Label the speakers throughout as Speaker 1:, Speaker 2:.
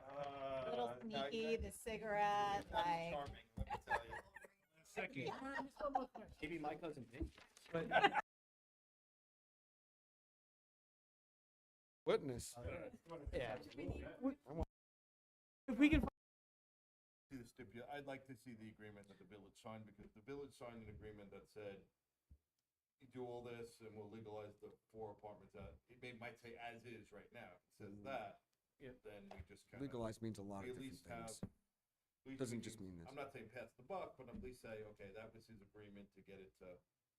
Speaker 1: Uh,
Speaker 2: whiskey, the cigarette, like.
Speaker 1: Charming, let me tell you.
Speaker 3: Second.
Speaker 1: Maybe my cousin Vinny.
Speaker 3: But
Speaker 4: Witness.
Speaker 5: Uh,
Speaker 3: yeah.
Speaker 5: If we can, find
Speaker 6: See the stipula, I'd like to see the agreement that the village signed, because the village signed an agreement that said, you do all this and we'll legalize the four apartments that, it may, might say as is right now, it says
Speaker 5: Mm.
Speaker 6: that, then we just kinda.
Speaker 4: Legalized means a lot
Speaker 6: We
Speaker 4: of
Speaker 6: at least
Speaker 4: different
Speaker 6: have.
Speaker 4: things.
Speaker 6: at least
Speaker 4: Doesn't
Speaker 6: we
Speaker 4: just
Speaker 6: can-
Speaker 4: mean this.
Speaker 6: I'm not saying pass the buck, but at least say, okay, that was his agreement to get it to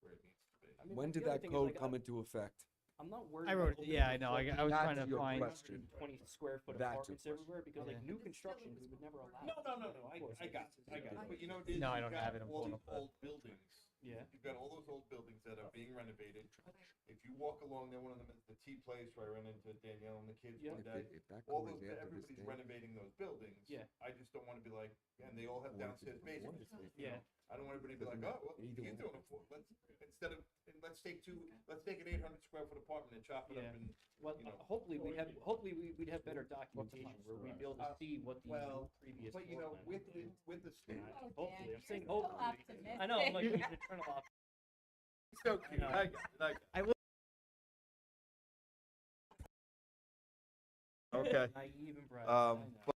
Speaker 6: where it needs to be.
Speaker 1: I mean,
Speaker 4: When did
Speaker 1: the
Speaker 4: that
Speaker 1: other thing
Speaker 4: code
Speaker 1: is, like,
Speaker 4: come into effect?
Speaker 1: I'm not worried.
Speaker 3: I
Speaker 1: about
Speaker 3: wrote it-
Speaker 1: opening
Speaker 3: yeah, I
Speaker 1: these
Speaker 3: know, I-
Speaker 1: fucking
Speaker 3: I was
Speaker 4: That's
Speaker 3: trying to
Speaker 4: your
Speaker 3: find-
Speaker 4: question.
Speaker 1: 120 square foot
Speaker 4: That's your
Speaker 1: apartments
Speaker 4: question.
Speaker 1: everywhere because like
Speaker 3: Yeah.
Speaker 1: new construction, we would never allow.
Speaker 6: No, no,
Speaker 1: that.
Speaker 6: no, no,
Speaker 1: Of
Speaker 6: I,
Speaker 1: course,
Speaker 6: I
Speaker 1: it's-
Speaker 6: got it, I got it, but you know. what is?
Speaker 3: No, I
Speaker 6: You've
Speaker 3: don't
Speaker 6: got
Speaker 3: have it, I'm
Speaker 6: all
Speaker 3: pulling
Speaker 6: these
Speaker 3: up the-
Speaker 6: Old buildings,
Speaker 1: Yeah.
Speaker 6: you've got all those old buildings that are being renovated, if you walk along there, one of them is the tea place where I ran into Danielle and the kids
Speaker 1: Yeah.
Speaker 6: one
Speaker 4: If
Speaker 6: day.
Speaker 4: it- if that
Speaker 6: All
Speaker 4: code
Speaker 6: those,
Speaker 4: is there to this
Speaker 6: everybody's
Speaker 4: day,
Speaker 6: renovating those buildings.
Speaker 1: Yeah.
Speaker 6: I just don't wanna be like, and they all have
Speaker 4: Or if it's
Speaker 6: downstairs
Speaker 4: before
Speaker 6: basements,
Speaker 4: it's there.
Speaker 6: you
Speaker 1: Yeah.
Speaker 6: know, I don't want everybody to be like, oh,
Speaker 4: Doesn't matter.
Speaker 6: well,
Speaker 4: Either
Speaker 6: you're
Speaker 4: way.
Speaker 6: doing it for, let's, instead of, and let's take two, let's take an eight hundred square foot apartment and chop it
Speaker 1: Yeah.
Speaker 6: up and.
Speaker 1: Well,
Speaker 6: you know,
Speaker 1: hopefully we have, hopefully we, we'd have better documentation where we'd be able to
Speaker 6: Uh,
Speaker 1: see what the
Speaker 6: well,
Speaker 1: previous.
Speaker 6: But you know,
Speaker 1: floor plan
Speaker 6: with,
Speaker 1: was.
Speaker 6: the- with the state,
Speaker 2: Oh, Dan,
Speaker 1: Hopefully,
Speaker 2: you're
Speaker 1: I'm saying
Speaker 2: so
Speaker 1: hopefully. I know, I'm like,
Speaker 2: optimistic.
Speaker 1: he's an eternal optimist.
Speaker 6: it's so cute,
Speaker 1: know.
Speaker 6: I got it, I got it.
Speaker 5: I will-
Speaker 6: Okay.
Speaker 1: Naive and bright.
Speaker 6: Um, but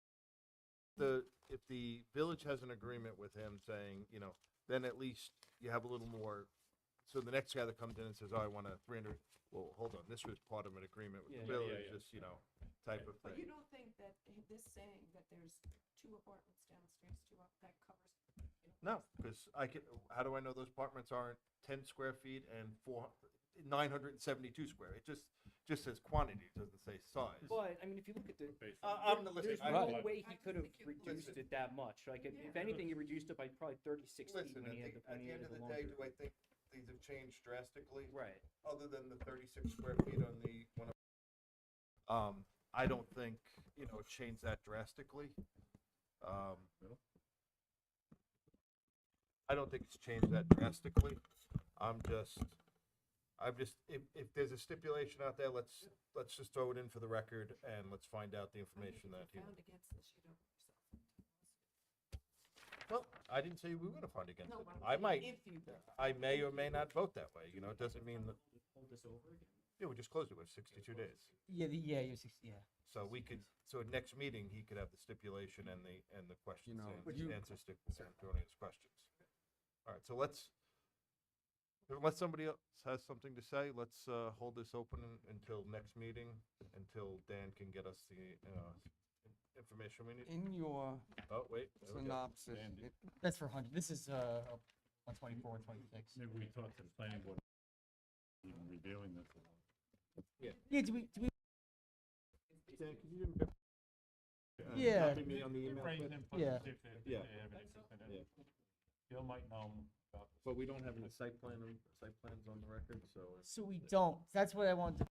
Speaker 6: the, if the village has an agreement with him saying, you know, then at least you have a little more. So the next guy that comes in and says, oh, I want a three hundred, well, hold on, this was part of an agreement with
Speaker 1: Yeah.
Speaker 6: the
Speaker 1: Yeah, yeah,
Speaker 6: village, this, you know, type of
Speaker 7: But
Speaker 6: thing.
Speaker 7: you don't think that h- this saying that there's two apartments downstairs, two up, that covers?
Speaker 6: No, because I can, how do I know those apartments aren't ten square feet and four, nine hundred and seventy-two square? It just, just says quantity, it doesn't say size.
Speaker 1: But, I mean, if you look at the,
Speaker 6: Uh, I'm not
Speaker 1: there's
Speaker 6: listening, I-
Speaker 1: no
Speaker 4: Right.
Speaker 1: way
Speaker 7: I
Speaker 1: he
Speaker 7: just
Speaker 1: could have
Speaker 7: think it-
Speaker 1: reduced
Speaker 6: Listen.
Speaker 1: it that much, like, if- if
Speaker 7: Yeah.
Speaker 1: anything, he reduced it by probably thirty-six feet
Speaker 6: Listen, I
Speaker 1: when he had
Speaker 6: think,
Speaker 1: the,
Speaker 6: at
Speaker 1: when he
Speaker 6: the end
Speaker 1: had
Speaker 6: of
Speaker 1: the
Speaker 6: the
Speaker 1: laundry.
Speaker 6: day, do I think these have changed drastically?
Speaker 1: Right,
Speaker 6: other than the thirty-six square feet on the one. of- Um, I don't think, you know, it changed that drastically. Um, I don't think it's changed that drastically. I'm just, I'm just, if, if there's a stipulation out there, let's, let's just throw it in for the record and let's find out the
Speaker 7: I think
Speaker 6: information that
Speaker 7: if
Speaker 6: he.
Speaker 7: you're Found against this, you don't.
Speaker 6: Well, I didn't say we were gonna find against
Speaker 7: No,
Speaker 6: it.
Speaker 7: but I'm
Speaker 6: I
Speaker 7: saying
Speaker 6: might,
Speaker 7: If you. do.
Speaker 6: I may or may not vote that way, you know, it doesn't mean that,
Speaker 1: hold this over again.
Speaker 6: yeah, we just closed it with sixty-two days.
Speaker 3: Yeah, the, yeah, you're 60, yeah.
Speaker 6: So we could, so at next meeting, he could have the stipulation and the, and the questions,
Speaker 4: know,
Speaker 6: and
Speaker 4: you-
Speaker 6: answers to Antonio's questions. All right, so let's, unless somebody else has something to say, let's, uh, hold this open un- until next meeting, until Dan can get us the, uh, information we need.
Speaker 4: In your
Speaker 6: Oh, wait. there we go.
Speaker 4: synopsis, it-
Speaker 3: That's for 100. This is uh, 124, 126.
Speaker 8: Maybe we talk to the planning board, even reviewing this.
Speaker 3: Yeah, do we, do we,
Speaker 6: Dan, can you give me- uh,
Speaker 3: Yeah.
Speaker 6: copy me on the email,
Speaker 8: Raise
Speaker 6: please?
Speaker 8: input
Speaker 3: Yeah.
Speaker 8: and see if they, if they
Speaker 6: Yeah.
Speaker 8: have any input in
Speaker 6: Yeah.
Speaker 8: it. Bill might know about this.
Speaker 6: But we don't have any site plan, on- site plans on the record, so. it's-
Speaker 3: so we don't. That's what I wanted to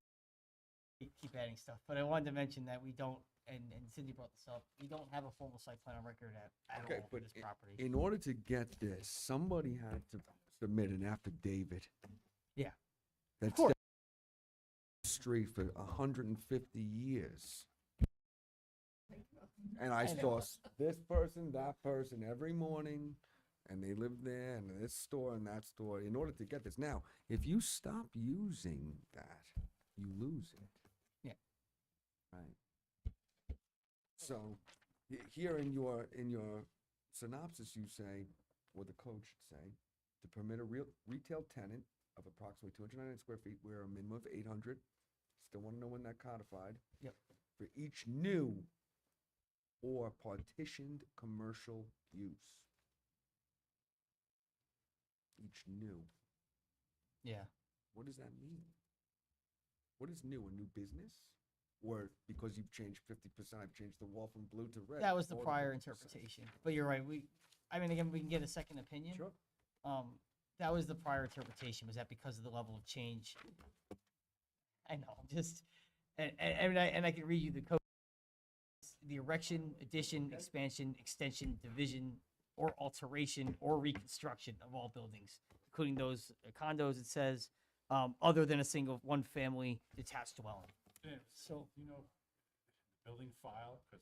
Speaker 3: keep- keep adding stuff, but I wanted to mention that we don't. And, and Cindy brought this up. We don't have a formal site plan on record at, at
Speaker 4: Okay,
Speaker 3: all for
Speaker 4: but
Speaker 3: this
Speaker 4: i-
Speaker 3: property.
Speaker 4: in order to get this, somebody had to submit an affidavit.
Speaker 3: Yeah.
Speaker 4: That's
Speaker 3: course.
Speaker 4: street for a hundred and fifty years. And I saw s- this person, that person every morning, and they lived there, and this store and that store, in order to get this. Now, if you stop using that, you lose it.
Speaker 3: Yeah.
Speaker 4: Right. So, he- here in your, in your synopsis, you say, or the code should say, to permit a real, retail tenant of approximately two hundred ninety square feet, where a minimum of eight hundred, still wanna know when that codified.
Speaker 3: Yep.
Speaker 4: For each new or partitioned commercial use. Each new,
Speaker 3: yeah.
Speaker 4: what does that mean? What is new, a new business? Or because you've changed fifty percent, I've changed the wall from blue to red.
Speaker 3: That was the
Speaker 4: or
Speaker 3: prior
Speaker 4: 50%.
Speaker 3: interpretation, but you're right. We, I mean, again, we can get a second opinion.
Speaker 4: Sure.
Speaker 3: Um, that was the prior interpretation. Was that because of the level of change? I know, I'm just, and, and, and I, and I can read you the code. The erection, addition, expansion, extension, division, or alteration or reconstruction of all buildings, including those condos, it says, um, other than a single one-family detached dwelling.
Speaker 8: Yeah,
Speaker 3: So,
Speaker 8: You know, the building file, because